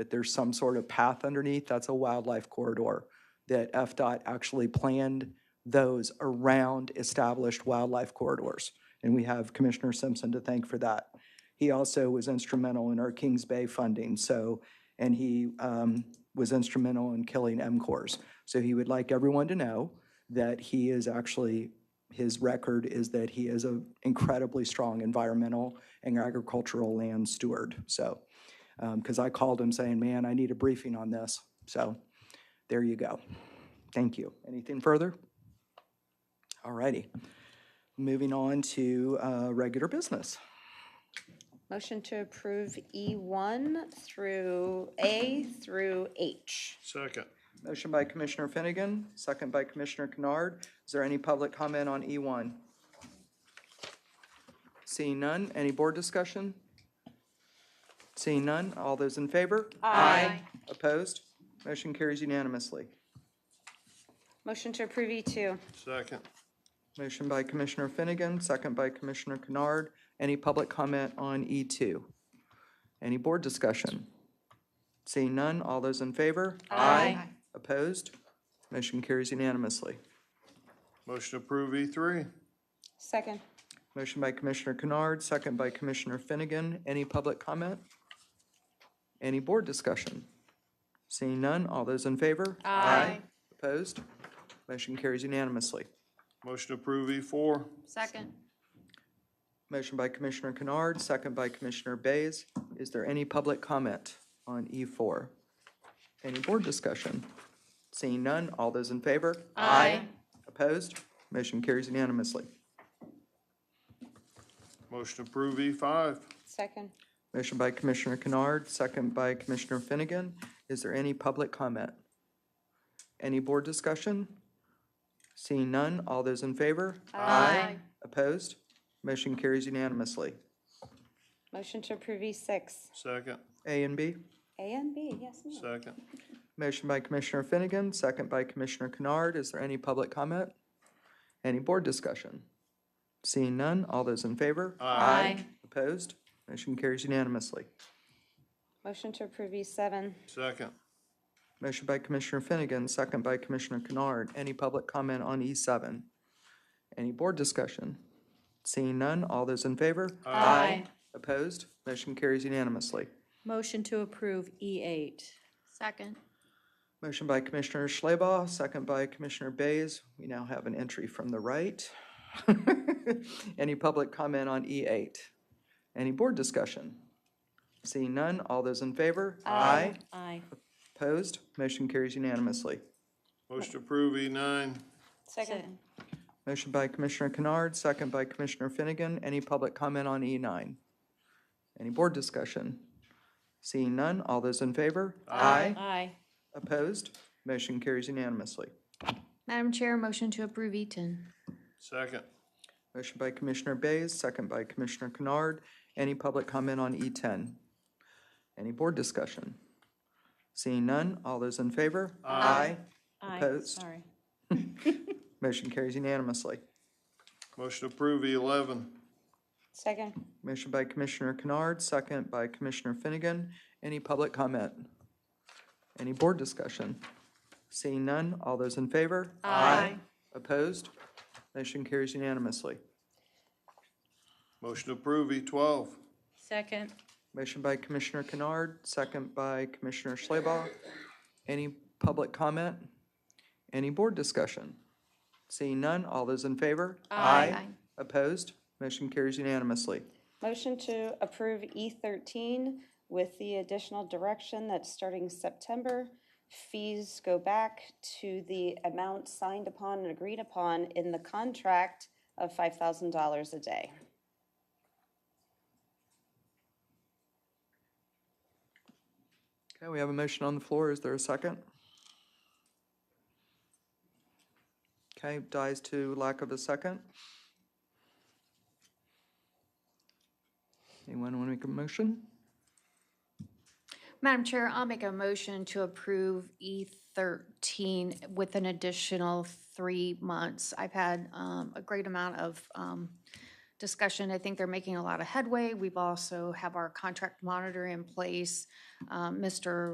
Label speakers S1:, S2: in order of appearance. S1: that there's some sort of path underneath, that's a wildlife corridor. That FDOT actually planned those around established wildlife corridors. And we have Commissioner Simpson to thank for that. He also was instrumental in our Kings Bay funding, so, and he um, was instrumental in killing MCORs. So he would like everyone to know that he is actually, his record is that he is an incredibly strong environmental and agricultural land steward. So, because um, I called him saying, man, I need a briefing on this. So there you go. Thank you. Anything further? All righty. Moving on to uh, regular business.
S2: Motion to approve E1 through A through H.
S3: Second.
S1: Motion by Commissioner Finnegan, second by Commissioner Kennard. Is there any public comment on E E1? Seeing none, any board discussion? Seeing none, all those in favor?
S2: Aye.
S1: Opposed? Motion carries unanimously.
S2: Motion to approve E E2.
S3: Second.
S1: Motion by Commissioner Finnegan, second by Commissioner Kennard. Any public comment on E2? Any board discussion? Seeing none, all those in favor?
S2: Aye.
S1: Opposed? Motion carries unanimously.
S3: Motion to approve E three.
S2: Second.
S1: Motion by Commissioner Kennard, second by Commissioner Finnegan. Any public comment? Any board discussion? Seeing none, all those in favor? Aye. Opposed? Motion carries unanimously.
S3: Motion to approve E four.
S4: Second.
S1: Motion by Commissioner Kennard, second by Commissioner Bays. Is there any public comment on E4? Any board discussion? Seeing none, all those in favor?
S4: Aye.
S1: Opposed? Motion carries unanimously.
S3: Motion to approve E five.
S2: Second.
S1: Motion by Commissioner Kennard, second by Commissioner Finnegan. Is there any public comment? Any board discussion? Seeing none, all those in favor?
S4: Aye.
S1: Opposed? Motion carries unanimously.
S2: Motion to approve E6.
S3: Second.
S1: A and B?
S2: A and B, yes, ma'am.
S3: Second.
S1: Motion by Commissioner Finnegan, second by Commissioner Kennard. Is there any public comment? Any board discussion? Seeing none, all those in favor?
S4: Aye.
S1: Opposed? Motion carries unanimously.
S2: Motion to approve E E7.
S3: Second.
S1: Motion by Commissioner Finnegan, second by Commissioner Kennard. Any public comment on E7? Any board discussion? Seeing none, all those in favor?
S4: Aye.
S1: Opposed? Motion carries unanimously.
S5: Motion to approve
S4: E
S5: E8.
S4: Second.
S1: Motion by Commissioner Schleba, second by Commissioner Bays. We now have an entry from the right. Any public comment on E8? Any board discussion? Seeing none, all those in favor? Aye.
S5: Aye.
S1: Opposed? Motion carries unanimously.
S3: Motion to approve E nine.
S2: Second.
S1: Motion by Commissioner Kennard, second by Commissioner Finnegan. Any public comment on E9? Any board discussion? Seeing none, all those in favor? Aye.
S5: Aye.
S1: Opposed? Motion carries unanimously.
S4: Madam Chair, motion to approve E E10.
S3: Second.
S1: Motion by Commissioner Bays, second by Commissioner Kennard. Any public comment on E10? Any board discussion? Seeing none, all those in favor? Aye.
S5: Aye,
S1: Opposed?
S5: sorry.
S1: Motion carries unanimously.
S3: Motion to approve E eleven.
S2: Second.
S1: Motion by Commissioner Kennard, second by Commissioner Finnegan. Any public comment? Any board discussion? Seeing none, all those in favor? Aye. Opposed? Motion carries unanimously.
S3: Motion to approve E twelve.
S5: Second.
S1: Motion by Commissioner Kennard, second by Commissioner Schleba. Any public comment? Any board discussion? Seeing none, all those in favor?
S4: Aye.
S1: Opposed? Motion carries unanimously.
S2: Motion to approve E13 with the additional direction that starting September, fees go back to the amount signed upon and agreed upon in the contract of $5,000 a day.
S1: Okay, we have a motion on the floor. Is there a second? Okay, dies to lack of a second. Anyone want to make a motion?
S4: Madam Chair, I'll make a motion to approve E13 with an additional three months. I've had um, a great amount of um, discussion. I think they're making a lot of headway. We've also have our contract monitor in place. Um, Mr.